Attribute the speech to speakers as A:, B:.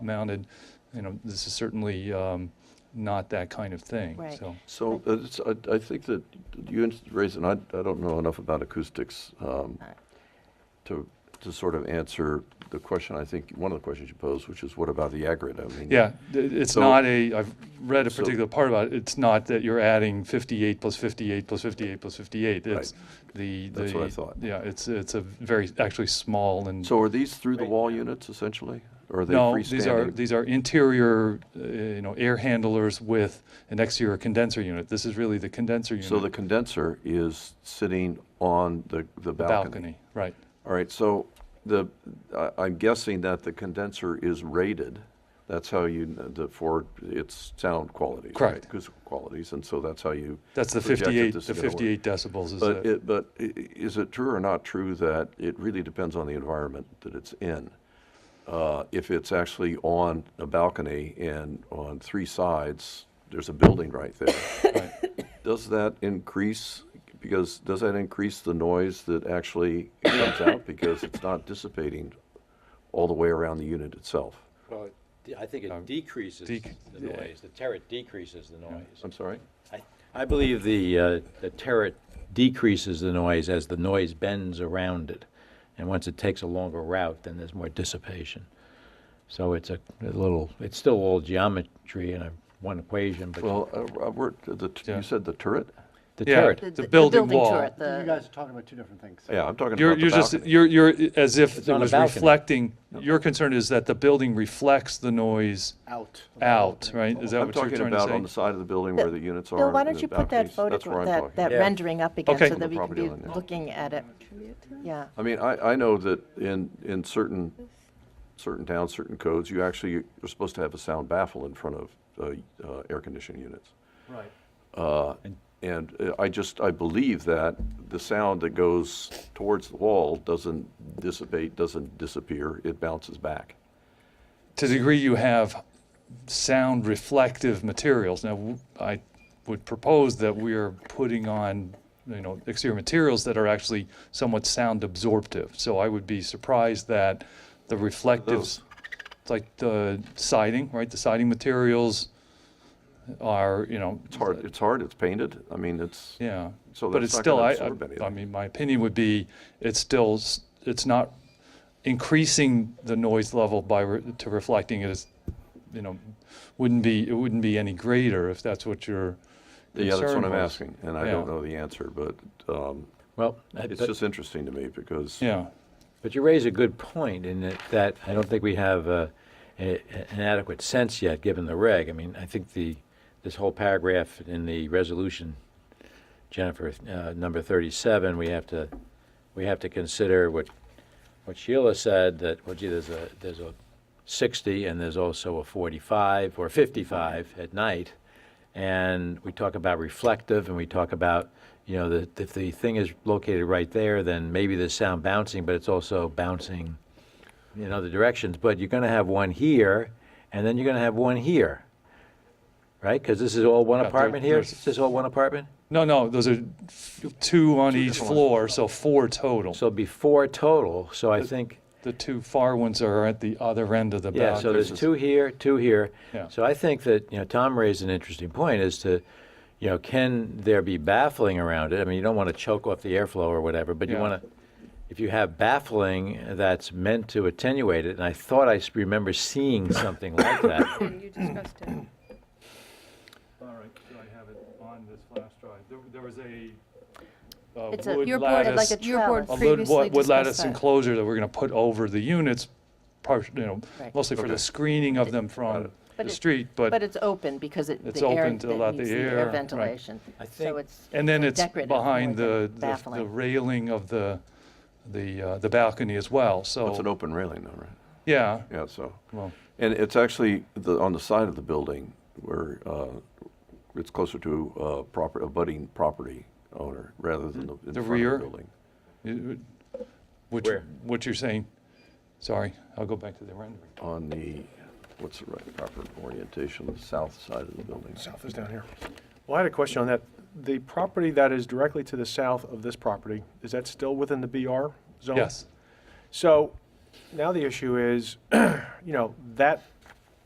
A: mounted, you know, this is certainly um, not that kind of thing,
B: Right.
A: so.
C: So uh, it's, I, I think that you ins- raised, and I, I don't know enough about acoustics um,
B: Alright.
C: to, to sort of answer the question, I think, one of the questions you posed, which is what about the aggregate? I mean,
A: Yeah, th- it's
C: So-
A: not a, I've read a
C: so-
A: particular part about it, it's not that you're adding 58 plus 58 plus 58 plus 58.
C: Right.
A: It's the, the.
C: That's what I thought.
A: Yeah, it's, it's a very, actually small and.
C: So are these through-the-wall units essentially? Or are they
A: No, these are,
C: freestanding?
A: these are interior, uh, you know, air handlers with an exterior condenser unit. This is really the condenser unit.
C: So the condenser is sitting on the,
A: the
C: the balcony?
A: Right.
C: All right, so the, I- I'm guessing that the condenser is rated. That's how you, the, for its sound qualities, right?
A: Correct.
C: Acoustical qualities, and so that's how you.
A: That's the
C: projected
A: 58,
C: this
A: the
C: is gonna work.
A: 58 decibels is
C: But
A: the,
C: it, but i- i- is it true or not true that it really depends on the environment that it's in? Uh, If it's actually on a balcony and on three sides, there's a building right there.
A: right.
C: Does that increase, because, does that increase the noise that actually comes out? Because it's not dissipating all the way around the unit itself.
D: Well, it de- I think it decreases
A: dec-
D: the
A: yeah.
D: noise, the turret decreases the noise.
C: I'm sorry?
D: I- I believe the, uh, the turret decreases the noise as the noise bends around it. And once it takes a longer route, then there's more dissipation. So it's a a little, it's still all geometry and a one equation, but
C: Well, uh, uh, we're, the, t-
A: Yeah.
C: you said the turret?
D: the
A: Yeah.
D: turret.
A: The building wall.
B: turret, the-
E: You guys are talking about two different things.
C: Yeah, I'm talking
A: You're,
C: about the
A: you're just,
C: balcony.
A: you're, you're, as if
D: It's
A: it
D: on a
A: was
D: balcony.
A: reflecting, your concern is that the building reflects the noise
E: Out.
A: out, right? Is that
C: I'm
A: what you're
C: talking
A: trying to
C: about on the
A: say?
C: side of the building where the units are.
B: Bill, why
C: and
B: don't
C: the
B: you put that
C: balconies. That's where
B: photograph,
C: I'm
B: that,
C: talking.
B: that
D: Yeah.
B: rendering up again,
A: Okay.
B: so
A: On
C: the
B: that we can
C: property
B: be
C: line, yeah.
B: looking at it? Yeah,
C: I mean, I, I know that in, in certain, certain towns, certain codes, you actually, you're supposed to have a sound baffle in front of, uh, uh, air conditioning units.
A: Right.
C: Uh, and uh, I just, I believe that the sound that goes towards the wall doesn't dissipate, doesn't disappear, it bounces back.
A: To the degree you have sound reflective materials, now, w- I would propose that we are putting on, you know, exterior materials that are actually somewhat sound absorptive. So I would be surprised that the reflectives, like the siding, right, the siding materials are, you know,
C: It's hard, it's hard, it's painted, I mean, it's,
A: Yeah.
C: So
A: but
C: that's
A: it's
C: not
A: still,
C: gonna
A: I,
C: absorb
A: I, I
C: anything.
A: mean, my opinion would be, it's still, s- it's not increasing the noise level by, re- to reflecting it as, you know, wouldn't be, it wouldn't be any greater if that's what your concern
C: yeah, that's what I'm
A: was.
C: asking, and I don't
A: Yeah.
C: know the answer, but, um,
D: Well, I-
C: it's
D: but-
C: just interesting to me because.
A: Yeah,
D: But you raise a good point in that, that I don't think we have uh, a- a- an adequate sense yet, given the reg. I mean, I think the, this whole paragraph in the resolution, Jennifer, uh, number 37, we have to, we have to consider what, what Sheila said, that, well, gee, there's a, there's a 60 and there's also a 45 or 55 at night. And we talk about reflective and we talk about, you know, that if the thing is located right there, then maybe there's sound bouncing, but it's also bouncing in other directions. But you're going to have one here and then you're going to have one here, right? Because this is all one
A: Yeah, there-
D: apartment here?
A: there's-
D: Is this all one apartment?
A: no, no, those are f- two on each floor, so four total.
D: So it'd be four total, so I think.
A: The two far ones are at the other end of the
D: Yeah, so
A: boundary.
D: there's two here, two here.
A: Yeah.
D: So I think that, you know, Tom raised an interesting point as to, you know, can there be baffling around it? I mean, you don't want to choke off the airflow or whatever, but you
A: Yeah.
D: want to, if you have baffling that's meant to attenuate it, and I thought I s- remember seeing something like that.
F: You discussed it.
A: All right, do I have it on this flash drive? There, there was a,
B: It's
A: uh,
B: a-
A: wood
B: your
F: board-
A: lattice.
B: like a
F: Your board
B: trellis.
A: a wood,
F: previously
A: wood lattice
F: discussed that.
A: enclosure that we're going to put over the units, par- you know,
B: Right.
A: mostly for the
C: Okay.
A: screening of them from
B: But
A: the
B: it-
A: street,
B: but
A: but,
B: it's open because it,
A: It's
B: the air,
A: open
B: that
A: to let
B: needs
A: the
B: the
A: air,
B: air
A: right.
B: ventilation.
D: I
B: So
D: think-
B: it's
A: and then it's
B: decorative more
A: behind
B: than
A: the, the- the
B: baffling.
A: railing of the, the, uh, the balcony as well,
C: It's an
A: so,
C: open railing though, right?
A: yeah,
C: Yeah, so.
A: well,
C: And it's actually the, on the side of the building where uh, it's closer to uh, proper, a budding property owner rather than the,
A: The
C: in front
A: rear?
C: of the building.
A: it- which,
D: Where?
A: what you're saying, sorry, I'll go back to the rendering.
C: On the, what's the right proper orientation, the south side of the building.
E: South is down here. Well, I had a question on that. The property that is directly to the south of this property, is that still within the BR zone?
A: Yes,
E: So now the issue is, you know, that